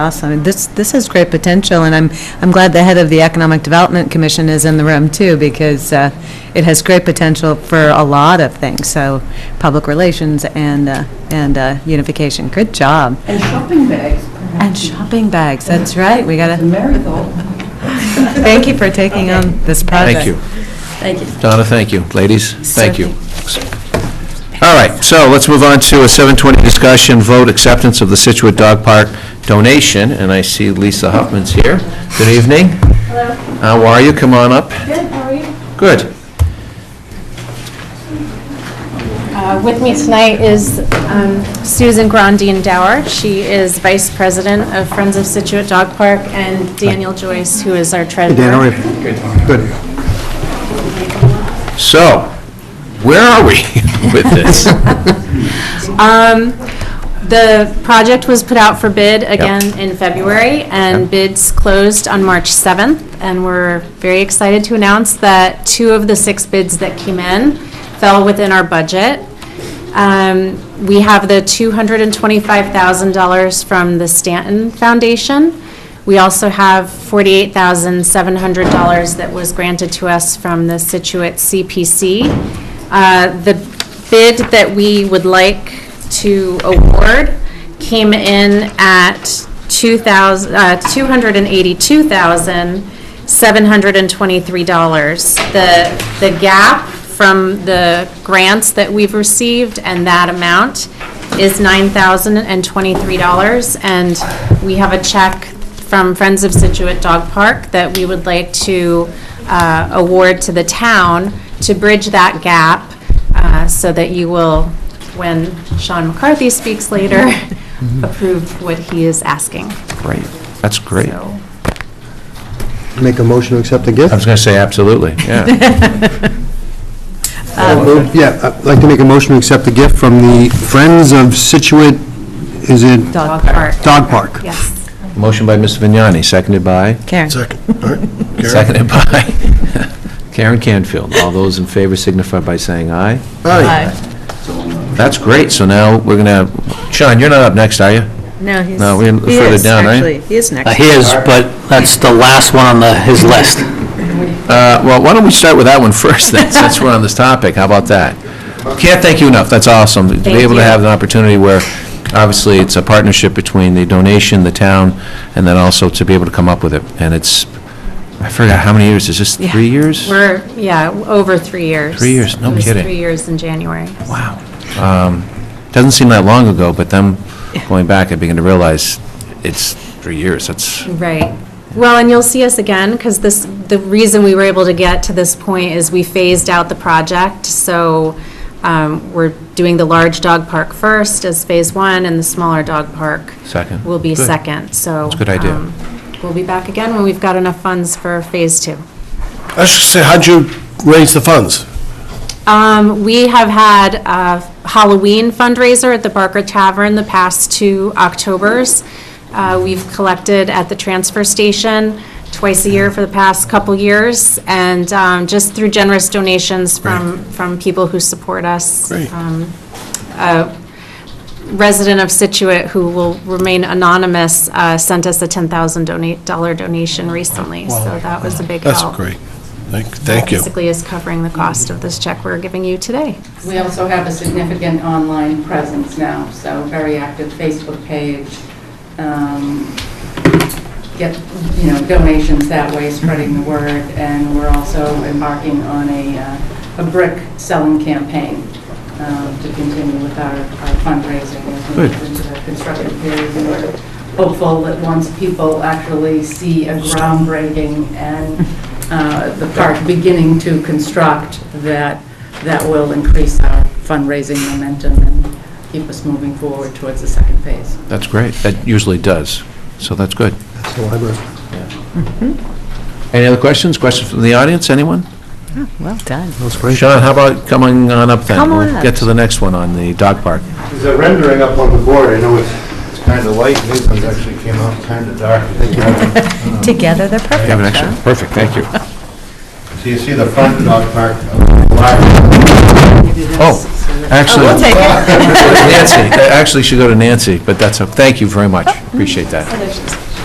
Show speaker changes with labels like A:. A: Awesome. And This, this has great potential, and I'm, I'm glad the head of the Economic Development Commission is in the room, too, because uh, it has great potential for a lot of things, so public relations and, uh, and uh, unification. Good job.
B: And shopping bags,
A: And shopping bags, that's right, we
B: the
A: gotta,
B: marigold.
A: thank you for taking on this project.
C: Thank
B: Thank
C: you.
B: you.
C: Donna, thank you. Ladies, thank you. All right, so let's move on to a 7:20 discussion, vote acceptance of the Situate Dog Park donation, and I see Lisa Huffman's here. Good evening. Hello. How are you? Come on up. Good, how are you? Good.
D: Uh, With me tonight is um, Susan Grandin Dower. She is Vice President of Friends of Situate Dog Park, and Daniel Joyce, who is our treasurer.
C: So, where are we with this?
D: Um, The project was put out for bid again in February, and
C: Yep.
D: bids closed on March 7th, and we're very excited to announce that two of the six bids that came in fell within our budget. Um, We have the $225,000 from the Stanton Foundation. We also have $48,700 that was granted to us from the Situate CPC. Uh, The bid that we would like to award came in at 2,000 uh, $282,723. The, the gap from the grants that we've received and that amount is $9,023. And we have a check from Friends of Situate Dog Park that we would like to uh, award to the town to bridge that gap uh, so that you will, when Sean McCarthy speaks later,
C: Mm-hmm.
D: approve what he is asking.
C: Great, that's great. I
D: So,
E: Make a motion to accept the gift?
C: was going to say absolutely, yeah.
E: Yeah, I'd like to make a motion to accept the gift from the Friends of Situate, is it
D: Dog Park,
E: Dog Park?
D: yes.
C: Motion by Ms. Vignani, seconded by?
A: Karen.
C: Seconded by Karen Canfield. All those in favor signify by saying aye. That's great, so now we're going to, Sean, you're not up next, are you?
A: No, he's,
C: No, we're
A: he
C: further
A: is,
C: down, right?
A: actually. He is
F: Uh,
A: next.
F: His, but that's the last one on the, his list.
C: Uh, Well, why don't we start with that one first, then, since we're on this topic, how about that? Can't thank you enough, that's awesome. To be
D: Thank
C: able to
D: you.
C: have an opportunity where, obviously, it's a partnership between the donation, the town, and then also to be able to come up with it, and it's, I forgot, how many years, is this
A: Yeah.
C: three years?
D: We're, yeah, over three years.
C: Three years, no
D: It was
C: kidding.
D: three years in January.
C: Wow. Um, Doesn't seem that long ago, but then going back, I begin to realize it's three years, that's,
D: Right. Well, and you'll see us again, because this, the reason we were able to get to this point is we phased out the project, so um, we're doing the large dog park first as phase one, and the smaller dog park
C: Second.
D: will be
C: Good.
D: second, so.
C: That's a good idea.
D: um, We'll be back again when we've got enough funds for phase two.
G: I should say, how'd you raise the funds?
D: Um, We have had a Halloween fundraiser at the Barker Tavern the past two Octobers. Uh, We've collected at the transfer station twice a year for the past couple years, and um, just through generous donations from, from people who support us.
G: Great.
D: Um, a Resident of Situate, who will remain anonymous, uh, sent us a $10,000 donate- dollar donation recently, so that was a big help.
G: That's great. Thank, thank you.
D: Basically is covering the cost of this check we're giving you today.
B: We also have a significant online presence now, so very active Facebook page. um, Get, you know, donations that way, spreading the word, and we're also embarking on a, uh, a brick selling campaign um, to continue with our our fundraising as we
C: Good.
B: move into the construction period. And we're hopeful that once people actually see a groundbreaking and uh, the park beginning to construct, that, that will increase our fundraising momentum and keep us moving forward towards the second phase.
C: that's great, that usually does, so that's good.
E: That's the library.
C: Any other questions, questions from the audience, anyone?
A: Well done.
E: That's great.
C: Sean, how about coming on up then?
A: Come on
C: We'll
A: up.
C: get to the next one on the dog park.
H: There's a rendering up on the board, I know it's, it's kind of light, these ones actually came out kind of dark.
A: Together, they're
C: You have an
A: perfect, huh?
C: extra? Perfect, thank you.
A: Oh,
H: So you see the front dog park, of the large,
C: Oh, Actually,
A: We'll take it.
C: Nancy, that actually should go to Nancy, but that's, o- thank you very much, appreciate that.